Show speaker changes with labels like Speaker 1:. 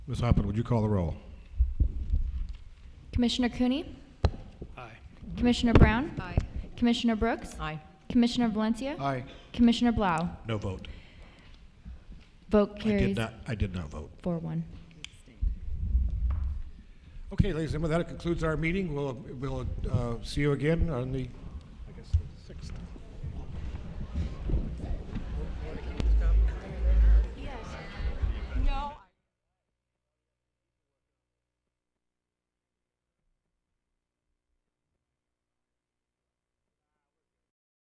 Speaker 1: Ms. Hoppin, would you call the roll?
Speaker 2: Commissioner Cooney?
Speaker 3: Aye.
Speaker 2: Commissioner Brown?
Speaker 4: Aye.
Speaker 2: Commissioner Brooks?
Speaker 4: Aye.
Speaker 2: Commissioner Valencia?
Speaker 3: Aye.
Speaker 2: Commissioner Blau?
Speaker 1: No vote.
Speaker 2: Vote
Speaker 1: I did
Speaker 2: carries
Speaker 1: not, I did not vote.
Speaker 2: four one.
Speaker 1: Okay, ladies and gentlemen, that concludes our meeting. We'll, we'll uh, see you again on the